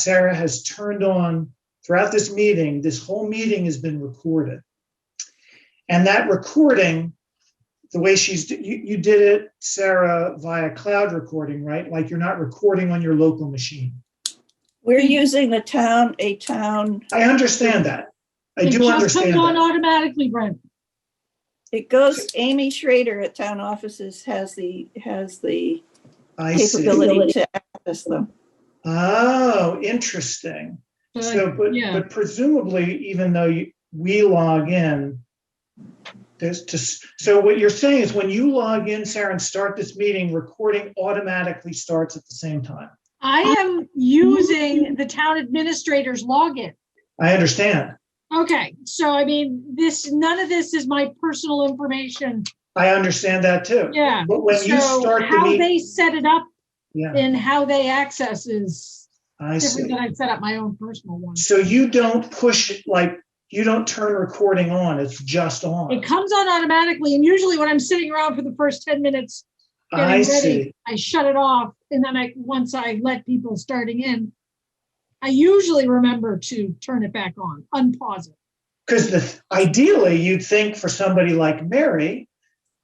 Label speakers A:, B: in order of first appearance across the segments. A: Sarah has turned on throughout this meeting. This whole meeting has been recorded. And that recording, the way she's, you, you did it, Sarah, via cloud recording, right? Like you're not recording on your local machine.
B: We're
A: Hmm.
B: using the town, a town,
A: I understand that. I
C: It
A: do
C: just comes
A: understand
C: on
A: that.
C: Automatically, Brent.
B: it goes, Amy Schrader at Town Offices has the, has the
A: I see.
B: capability to access them.
A: Oh, interesting. So,
C: So,
A: but,
C: yeah,
A: but presumably, even though you, we log in, there's just, so what you're saying is when you log in, Sarah, and start this meeting, recording automatically starts at the same time.
C: I am using the town administrator's login.
A: I understand.
C: Okay, so I mean, this, none of this is my personal information.
A: I understand that too.
C: Yeah.
A: But when you
C: So
A: start the
C: how
A: meeting,
C: they set it up
A: yeah,
C: and how they access is
A: I
C: different
A: see.
C: than I set up my own personal one.
A: So you don't push, it like, you don't turn recording on, it's just
C: It
A: on.
C: comes on automatically and usually when I'm sitting around for the first ten minutes, getting
A: I
C: ready,
A: see.
C: I shut it off and then I, once I let people starting in, I usually remember to turn it back on, unpause it.
A: Because the, ideally, you'd think for somebody like Mary,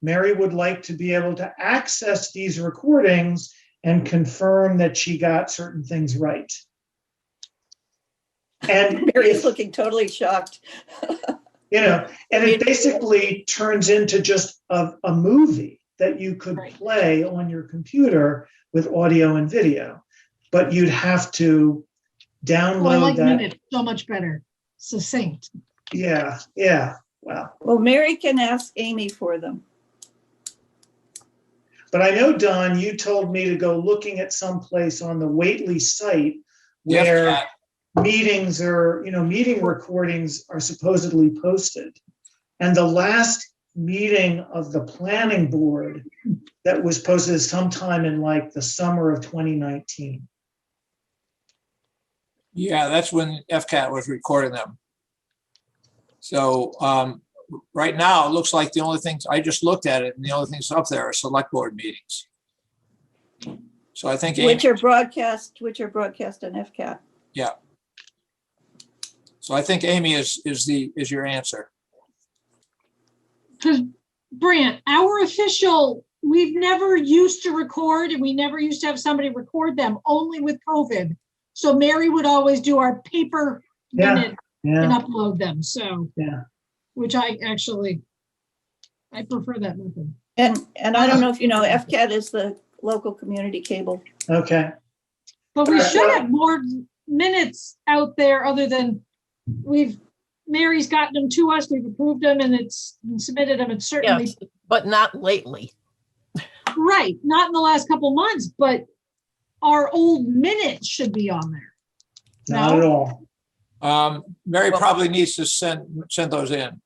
A: Mary would like to be able to access these recordings and confirm that she got certain things right. And
B: Mary's
A: if,
B: looking totally shocked.
A: you know, and it basically turns into just a, a movie that you could
C: Right.
A: play on your computer with audio and video, but you'd have to
C: Oh, I
A: download
C: like
A: that.
C: minutes so much better, succinct.
A: Yeah, yeah. Wow.
B: Well, Mary can ask Amy for them.
A: But I know, Don, you told me to go looking at someplace on the Waitley site
D: Yes,
A: where
D: Pat.
A: meetings are, you know, meeting recordings are supposedly posted. And the last meeting of the planning board that was posted is sometime in like the summer of 2019.
D: Yeah, that's when FCAT was recording them. So um, right now, it looks like the only things, I just looked at it and the only things up there are select board meetings. So I think, Amy-
B: Which are broadcast, which are broadcast on FCAT.
D: so I think Amy is, is the, is your answer.
C: Because Brant, our official, we've never used to record and we never used to have somebody record them, only with COVID. So Mary would always do our paper
A: Yeah.
C: minute and
A: Yeah,
C: upload them, so.
A: Yeah.
C: Which I actually, I prefer that method.
B: And, and I don't
A: Ah.
B: know if you know, FCAT is the local community cable.
A: okay.
C: But we
A: Alright,
C: should
A: well-
C: have more minutes out there other than we've, Mary's gotten them to us, we've approved them and it's submitted them. It's certainly,
E: but not lately.
C: right, not in the last couple months, but our old minutes should be on there.
A: Not at all.
D: Um, Mary
E: Well-
D: probably needs to send, send those in.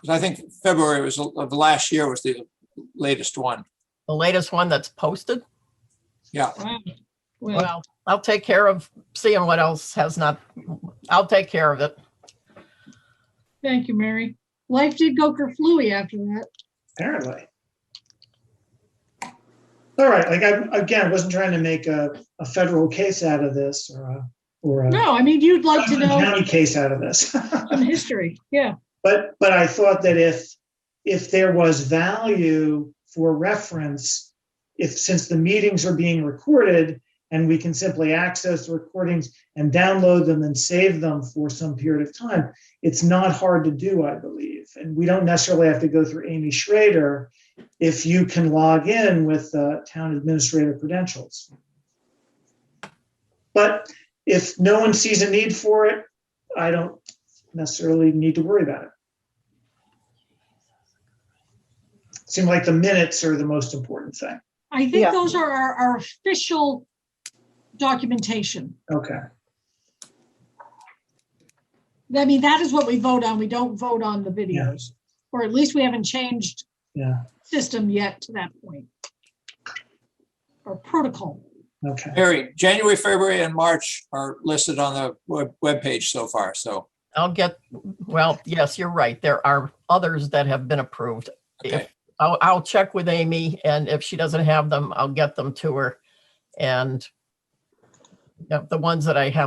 D: Because I think February was, of last year was the latest one.
E: The latest one that's posted.
D: Yeah,
C: Wow. Well,
E: Well, I'll take care of seeing what else has not, I'll take care of it.
C: thank you, Mary. Life did go kerflooey after that.
A: Apparently. All right, like I, again, wasn't trying to make a, a federal case out of this or a, or a.
C: No, I mean, you'd like to know
A: County case out of this.
C: some history. Yeah,
A: But, but I thought that if, if there was value for reference, if, since the meetings are being recorded and we can simply access the recordings and download them and save them for some period of time, it's not hard to do, I believe. And we don't necessarily have to go through Amy Schrader if you can log in with uh, town administrator credentials. But if no one sees a need for it, I don't necessarily need to worry about it. Seem like the minutes are the most important thing.
C: I
B: Yeah.
C: think those are our, our official documentation.
A: Okay.
C: I mean, that is what we vote on. We don't vote on the
A: Yeah.
C: videos, or at least we haven't changed
A: Yeah.
C: system yet to that point. Or protocol.
A: Okay.
D: Mary, January, February and March are listed on the web webpage so far, so.
E: I'll get, well, yes, you're right. There are others that have been approved.
D: okay.
E: I'll, I'll check with Amy and if she doesn't have them, I'll get them to her. And the ones that I have